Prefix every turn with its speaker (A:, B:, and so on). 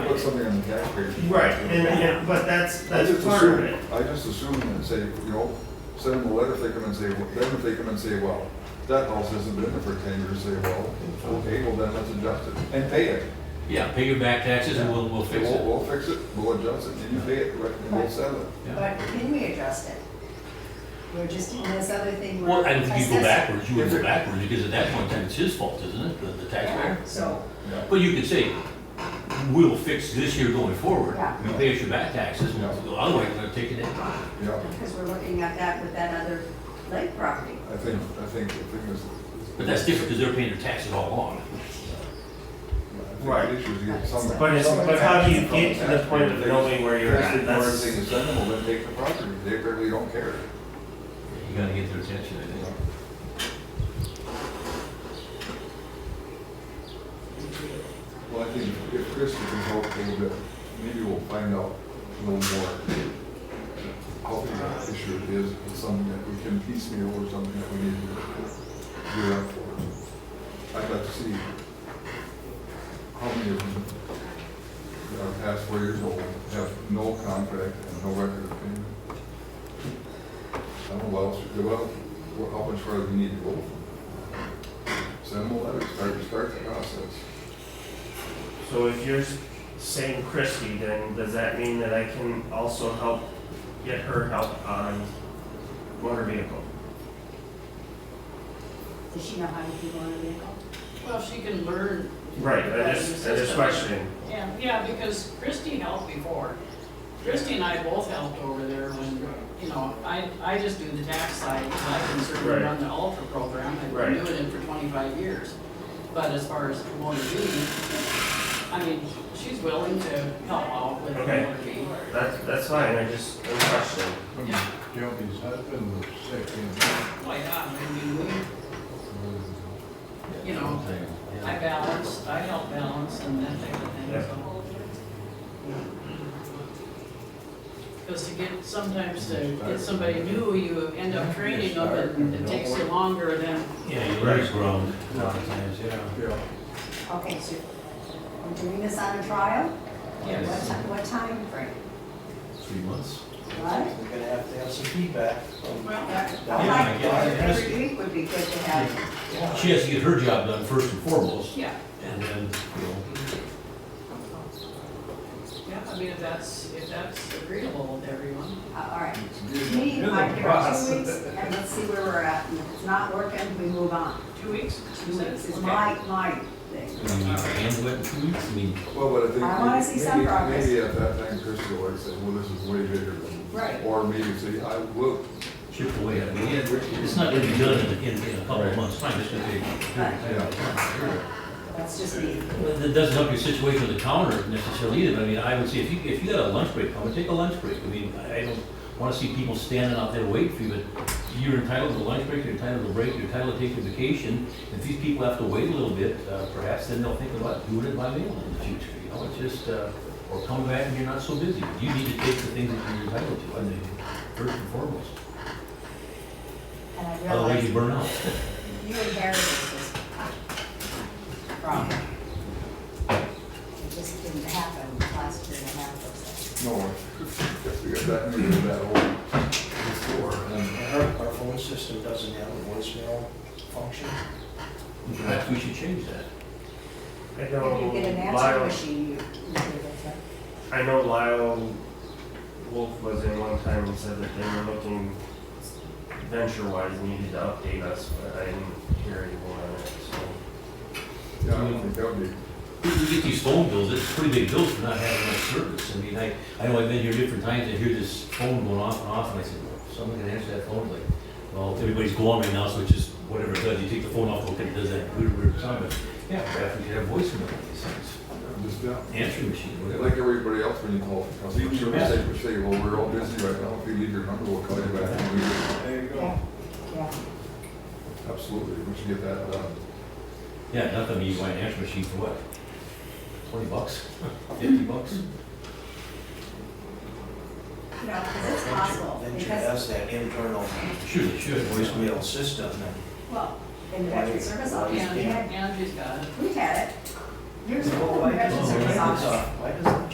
A: something on the taxpayers.
B: Right, and, and, but that's,
A: I
B: that's
A: just
B: part of
A: assume-
B: it.
A: I just assume and say, you know, send them a letter if they come and say, well, then if they come and say, well, that house hasn't been there for ten years, say, well, okay, well, then let's adjust it and pay it.
C: Yeah, pay your back taxes and we'll, we'll fix
A: We'll,
C: it.
A: we'll fix it, we'll adjust it, and you pay it, right, and we'll settle it.
C: Yeah.
D: But can we adjust it? We're just doing this other thing.
C: Well, I don't think you go
D: assessing.
C: backwards, you would go backwards, because at that point in time, it's his fault, isn't it, the, the taxpayer?
D: Yeah, So,
A: Yeah.
C: But you could say, we'll fix this year going forward,
D: Yeah.
C: you pay us your back taxes,
A: Yeah.
C: otherwise we're gonna take it in.
A: Yeah,
D: because we're looking at that with that other lake property.
A: I think, I think the thing is.
C: But that's different, because they're paying their taxes all along.
A: I think
B: Right.
A: The issue is get some.
B: But it's,
A: some
B: but how do you
A: action from
B: get to the point of
A: taxpayer.
B: knowing where you're
A: If
B: at?
A: the board
B: That's,
A: thing is send them, well, then take the property, they really don't care.
C: You gotta get their attention, I think.
A: Well, I think if Chris can help a little bit, maybe we'll find out a little more how big that issue it is, and something that we can piecemeal or something that we need to gear up for. I'd like to see how many of them that are past four years old have no contract and no record of payment. I don't know what else, we- well, what- how much further we need to go. Send them a letter, start, start the process.
B: so if you're s- saying Christie, then does that mean that I can also help get her help on motor vehicle?
D: Does she know how to do motor vehicle?
E: Well, she can learn.
B: Right, I just, I just questioning.
E: Yeah, yeah, because Christy helped before. Christy and I both helped over there when, you know, I, I just do the tax side, and I can certainly
B: Right.
E: run the Ultra program, I've
B: Right.
E: been doing it for twenty-five years. But as far as motor duty, I mean, she's willing to help out with
B: Okay.
E: motor duty.
B: That's, that's fine, I just, I'm questioning.
E: Yeah.
F: Jody's husband was sick and,
E: Why not, I mean, we, you know, I balanced, I help balance and that type of thing,
B: Yeah.
E: so. Because to get, sometimes to get somebody new, you end up training them and it takes you longer than,
C: Yeah, you
B: Right.
C: lose ground a lot of times, yeah.
A: Yeah.
D: Okay, so we're doing this on a trial? What
E: yes.
D: ti- What time frame?
C: Three months.
D: What?
G: We're gonna have to have some feedback from,
E: Well,
D: I
C: I
D: like,
C: get it.
D: every week would be good to have.
G: yeah.
C: She has to get her job done first and foremost,
E: yeah,
C: and then, you know,
E: yeah, I mean, if that's, if that's agreeable with everyone.
D: Uh, All right. Me, I give it two weeks and let's see where we're at. And if it's not working, we move on.
E: Two weeks?
D: Two weeks is
E: Okay.
D: my, my thing.
C: I mean, handle it in two weeks, I mean,
A: Well, but I think.
D: I wanna see some
A: maybe-
D: progress.
A: Maybe at that time, Crystal would say, well, this is way bigger than.
D: Right.
A: Or maybe say, I will,
C: chip away at it. I mean, yeah, It's not gonna be done in, in in a couple of months' time, it's gonna take.
D: That's just me.
C: Well, That doesn't help your situation with the counter necessarily either, but I mean, I would say if you, if you got a lunch break, come and take a lunch break. I mean, I I don't wanna see people standing out there waiting for you, but you're entitled to a lunch break, you're entitled to a break, you're entitled to take your vacation. If these people have to wait a little bit, uh, perhaps then they'll think about doing it by mail in the future, you know, it's just, uh, or come back and you're not so busy. You need to take the things that you're entitled to, I think, first and foremost.
D: And I
C: Otherwise you
D: realize
C: burn out.
D: you inherited this problem. It just didn't happen last year and a half or so.
A: no, if we got that, maybe that whole store and.
G: Our, our phone system doesn't have a voicemail function.
C: Perhaps we should change that.
B: I
D: If
B: know
D: you get an answer
B: Lyle,
D: machine, you, you do that,
B: I
D: right?
B: know Lyle Wolf was in one time and said that they were looking venture-wise needed to update us, but I didn't hear anyone on it, so.
A: Yeah, I don't think that would be,
C: We we get these phone bills, it's pretty big bills for not having much service. I mean, I, I know I've been here different times, I hear this phone going off and off, and I said, well, someone can answer that phone, like, well, everybody's gone right now, so it's just whatever it does, you take the phone off, look at it, does that weird, weird sound, but, yeah, perhaps we should have voicemail on these things.
A: just, yeah.
C: Answering machine, whatever.
A: Like everybody else when you call for customer service, they would say, well, we're all busy right now, if you leave your number, we'll call you back. And we-
G: There you
D: Yeah, yeah.
A: Absolutely, we should get that done.
C: Yeah, nothing, you buy an answering machine for what? Twenty bucks, fifty bucks?
D: You know, 'cause it's possible,
G: Venture
D: because,
G: has that internal
C: Sure, they should, voicemail.
G: voicemail system and
D: well, in the veteran service office, we
E: And,
D: had,
E: and she's got it.
D: we had it. Years ago,
G: Well,
D: in the
G: why
D: veteran
G: does,
D: service office.
G: why does